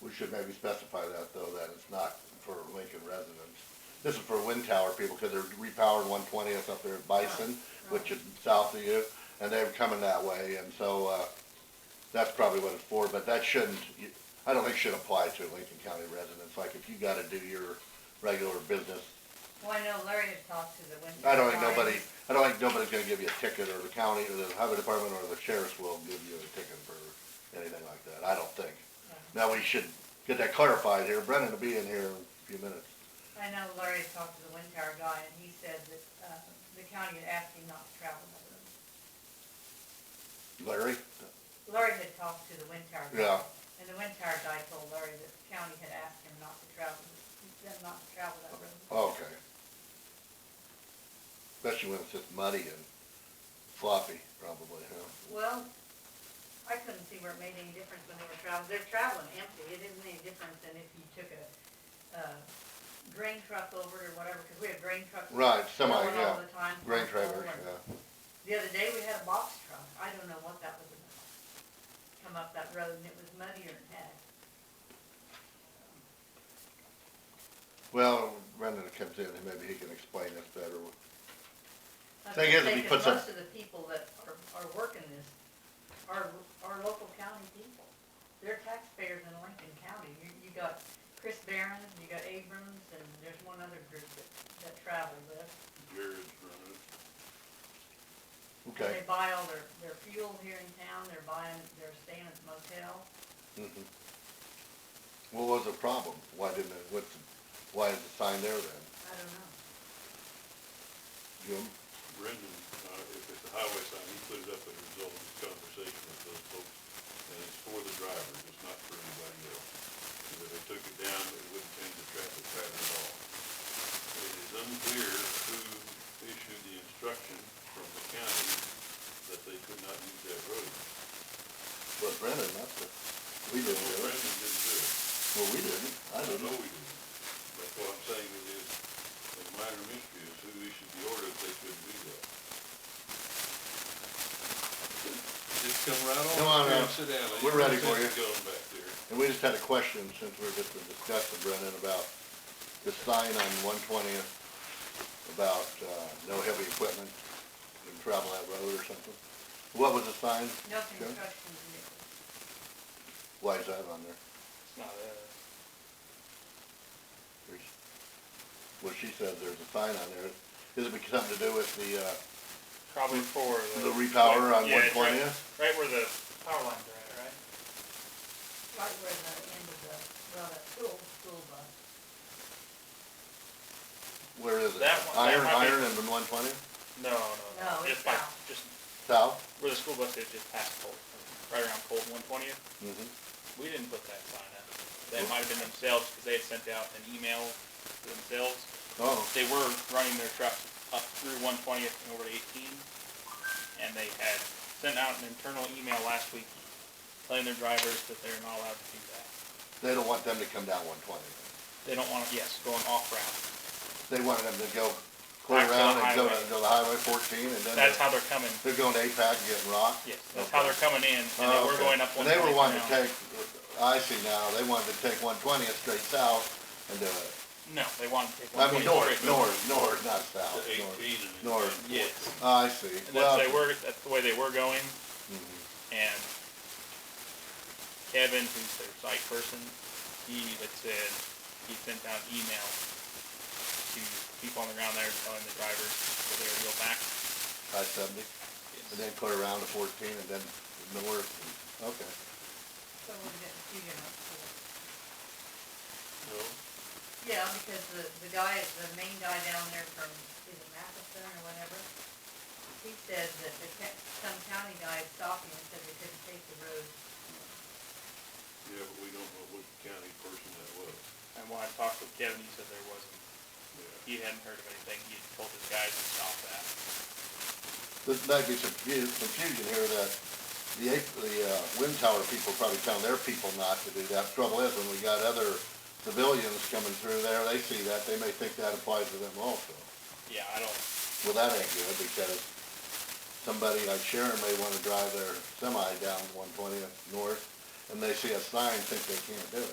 We should maybe specify that though, that it's not for Lincoln residents. This is for wind tower people, cause they're repowering one twentieth up there at Bison, which is south of you, and they're coming that way, and so, uh, that's probably what it's for, but that shouldn't, you- I don't think should apply to Lincoln County residents, like if you gotta do your regular business. Well, I know Larry had talked to the wind. I don't think farm. nobody, I don't think nobody's gonna give you a ticket, or the county, or the highway department, or the sheriff's will give you a ticket for anything like that, I don't think. Now, we should get that clarified here, Brendan will be in here in a few minutes. I know Larry had talked to the wind tower guy, and he said that, uh, the county had asked him not to travel with them. Larry? Larry had talked to the wind tower guy. Yeah. And the wind tower guy told Larry that the county had asked him not to travel, them not to travel that road. Oh, Okay. Especially when it's just muddy and floppy, probably, huh? Well, I couldn't see where it made any difference when they were traveling, they're traveling empty, it isn't any different than if you took a, uh, grain truck over or whatever, cause we had grain trucks. Right, semi, going yeah. All the time. Grain full trailers, and- yeah. The other day, we had a box truck, I don't know what that was about, come up that road and it was muddier than heck. Well, Brendan comes in, and maybe he can explain this better. I Thing is, if he think puts that a- Most of the people that are, are working this are, are local county people. They're taxpayers in Lincoln County. You, you got Chris Barron, you got Abrams, and there's one other group that, that travel with. Jared's running it. And Okay. They buy all their, their fuel here in town, they're buying, they're staying at motel. mhm. Mm-hmm. What was the problem? Why didn't it, what's, the- why is the sign there then? I don't know. Jim? Brendan, uh, if it's a highway sign, he put it up as a result of his conversation with those folks, and it's for the driver, it's not for anybody else. Because if they took it down, it wouldn't change the traffic pattern at all. It is unclear who issued the instruction from the county that they could not use that road. Well, Brendan, that's it. We So didn't do it. Brendan didn't do it. Well, we didn't. I I don't didn't. know we didn't. That's what I'm saying it is, a minor mystery is who issued the order if they couldn't do that. Just come right on. Come on down, up. Sit down. There's We're no ready for sense you. Going back there. And we just had a question since we were just discussing, Brendan, about the sign on one twentieth about, uh, no heavy equipment and travel that road or something. What was the sign? No Joe? construction vehicles. Why is that on there? It's not us. There's- Well, she said there's a sign on there. Is it because something to do with the, uh, Probably for the. the repower on one Yeah, it's right- twentieth? Right where the power lines are at, right? Right where the end of the, well, that school, school bus. Where is it? That one- that Iron, might be- iron and one twentieth? No, no, No, no. it's Just by, south. just South? where the school bus is, just past Colt, right around Colt one twentieth. Mm-hmm. We didn't put that sign up. That might have been themselves, because they had sent out an email to themselves. Oh, They were running their trucks up through one twentieth and over to eighteen. And they had sent out an internal email last week telling their drivers that they're not allowed to do that. they don't want them to come down one twentieth. They don't want, to yes, going off route. They wanted them to go clear Back to the around and go to, highway. go to Highway fourteen and then. That's they're- how they're coming They're going to APAC and getting rocked? Yes, that's how they're coming in, and they Oh, were okay. going up one And They were twenty wanting to now. take, I see now, they wanted to take one twentieth straight south and do it. No, they wanted to take one I mean, twenty north, straight. north, north, not The south, north. eighteen and. North. and Yes, I see. and Well, that's, they were, that's the way they were going, mhm. and Kevin, who's their site person, he had said, he sent out an email to people on the ground there telling the drivers that they were to go back. I seventy, and then clear around to fourteen and then north, okay. So we're getting two different schools. No, Yeah, because the, the guy, the main guy down there from, is it Matheson or whatever, he said that the, ca- some county guy stopped him and said they couldn't take the road. yeah, but we don't know what county person that was. And when I talked with Kevin, he said there wasn't, Yeah. he hadn't heard of anything, he had told his guys to stop that. This might be some confu- confusion here that the, eight- the, uh, wind tower people probably telling their people not to do that. Trouble is, when we got other civilians coming through there, they see that, they may think that applies to them also. Yeah, I don't, Well, that ain't good, because somebody like Sharon may wanna drive their semi down one twentieth north, and they see a sign, think they can't do it.